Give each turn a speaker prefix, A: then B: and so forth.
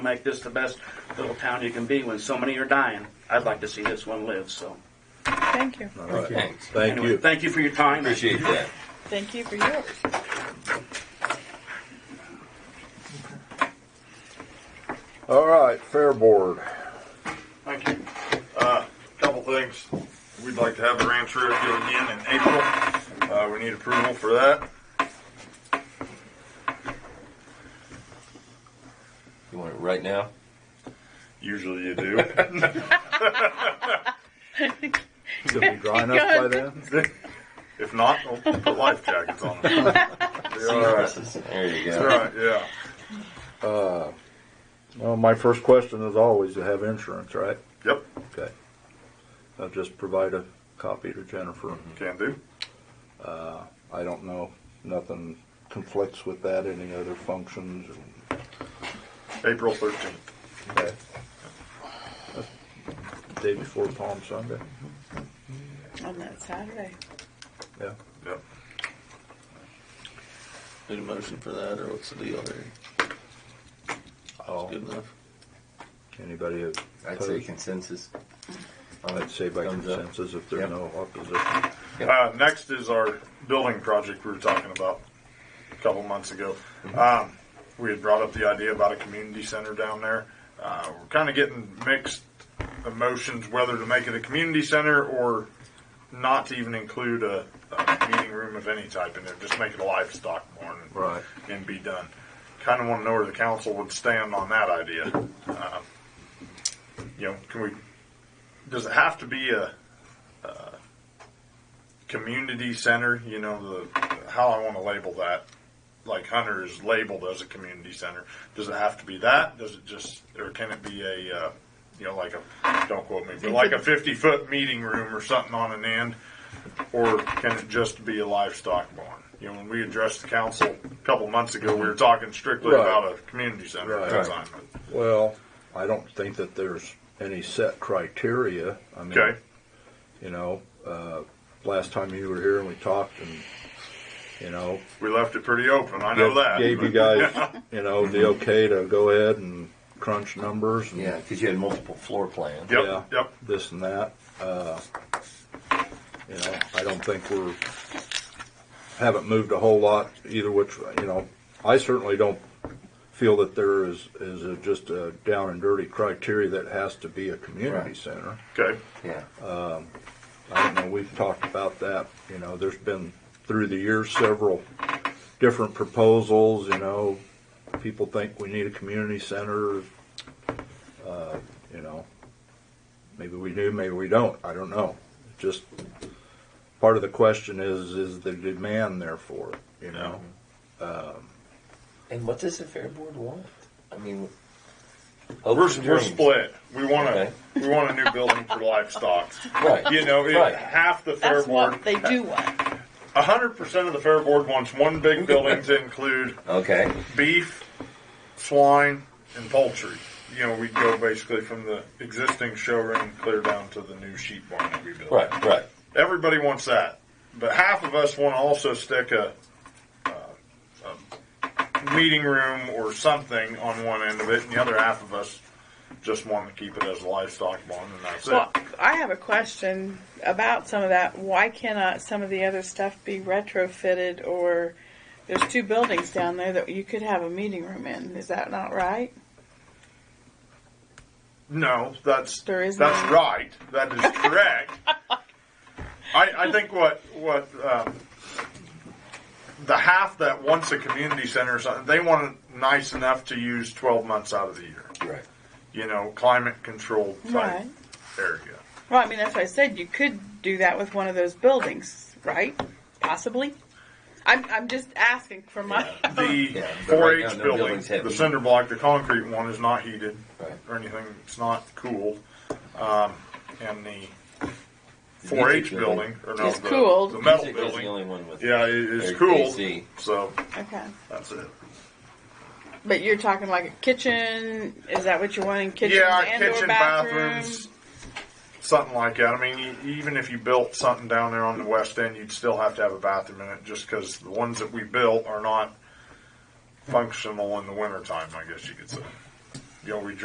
A: make this the best little town you can be when so many are dying. I'd like to see this one live, so.
B: Thank you.
C: All right.
D: Thanks.
C: Thank
A: anyway,
C: you.
A: Thank you for your time.
D: Appreciate that.
B: Thank you for yours.
C: All right, Fair Board.
E: Thank you. Uh, Couple things. We'd like to have the ranch rodeo again in April. Uh, We need approval for that.
D: You want it right now?
E: Usually you do.
C: Is it dry enough by then?
E: If not, we'll put life jackets on them. Be all right.
D: There you
E: It's
D: go.
E: all right, yeah.
C: Uh, well, my first question is always, you have insurance, right?
E: Yep,
C: Okay. I'll just provide a copy to Jennifer.
D: Mm-hmm.
E: can do.
C: I don't know, nothing conflicts with that, any other functions? or-
E: April 13th.
C: Okay. That's the Day before Palm Sunday,
B: On that Saturday.
C: yeah.
E: Yep.
F: Need a motion for that, or what's the deal there?
C: Oh,
F: Good enough.
C: anybody opposed?
D: I'd say consensus.
C: I'd say by
D: Thumbs up.
C: consensus if there's
D: Yep.
C: no opposition.
E: Uh, next is our building project we were talking about a couple months ago. Um, we had brought up the idea about a community center down there. Uh, we're kind of getting mixed emotions whether to make it a community center or not to even include a, a meeting room of any type in there. Just make it a livestock barn and,
C: Right.
E: and be done. Kind of want to know where the council would stand on that idea. Uh, you know, can we? Does it have to be a community center. You know the how I want to label that. Like Hunter is labeled as a community center. Does it have to be that? Does it just or can it be a uh, you know like a don't quote me, but like a fifty foot meeting room or something on an end, or can it just be a livestock barn? You know, when we addressed the council a couple months ago, we were talking strictly
C: Right.
E: about a community center at
C: Right.
E: that time.
C: Well, I don't think that there's any set criteria. I mean,
E: Okay.
C: you know, uh, last time you were here and we talked and, you know,
E: We left it pretty open. I know
C: gave-
E: that.
C: gave you
E: but-
C: guys, you know, the okay to go ahead and crunch numbers and
D: Yeah, because you had multiple floor plans.
E: Yep.
C: yeah,
E: Yep.
C: this and that. Uh, you know, I don't think we're haven't moved a whole lot either. Which you know, I certainly don't feel that there is is a, just a down and dirty criteria that has to be a community
D: Right.
C: center.
E: Okay.
D: Yeah.
C: I don't know. We've talked about that. You know, there's been through the years several different proposals. You know, people think we need a community center. Uh, you know, maybe we do, maybe we don't. I don't know. Just part of the question is is the demand there for it. You know,
D: And what does the fair board want? I mean,
E: We're,
D: hopes and
E: we're
D: dreams.
E: split. We want a
D: Okay.
E: we want a new building for livestock.
D: Right.
E: You know, it,
D: Right.
E: half the fair
B: That's
E: board,
B: what they do want.
E: hundred percent of the fair board wants one big building to include
D: Okay.
E: beef, swine, and poultry. You know, we go basically from the existing showroom clear down to the new sheep barn that we built.
D: Right. Right.
E: Everybody wants that, but half of us want to also stick a, uh, a meeting room or something on one end of it, and the other half of us just want to keep it as a livestock barn, and that's it.
B: Well, I have a question about some of that. Why cannot some of the other stuff be retrofitted or there's two buildings down there that you could have a meeting room in. Is that not right?
E: No, that's
B: There is
E: that's
B: none.
E: right. That is correct. I, I think what what um, the half that wants a community center or something, they want it nice enough to use twelve months out of the year.
D: Right.
E: You know, climate controlled type
B: Right.
E: area.
B: Well, I mean, that's what I said. You could do that with one of those buildings, right? Possibly. I'm, I'm just asking for my.
E: The
D: Yeah, but
E: four
D: right now,
E: H
D: no
E: building,
D: building's heavy.
E: the cinder block, the concrete one is not heated
D: Right.
E: or anything. It's not cooled. Um, and the four H
D: music building
E: building, or no,
B: is
E: the,
B: cooled.
E: the metal
D: Music was the
E: building.
D: only one with.
E: Yeah, it, it's
D: Very
E: cooled.
D: AC.
E: So
B: Okay.
E: that's it.
B: But you're talking like a kitchen. Is that what you're wanting? Kitchens
E: yeah,
B: and or
E: kitchen,
B: bathrooms.
E: bathrooms, something like that. I mean, e- even if you built something down there on the west end, you'd still have to have a bathroom in it, just because the ones that we built are not functional in the wintertime, I guess you could say. you know, we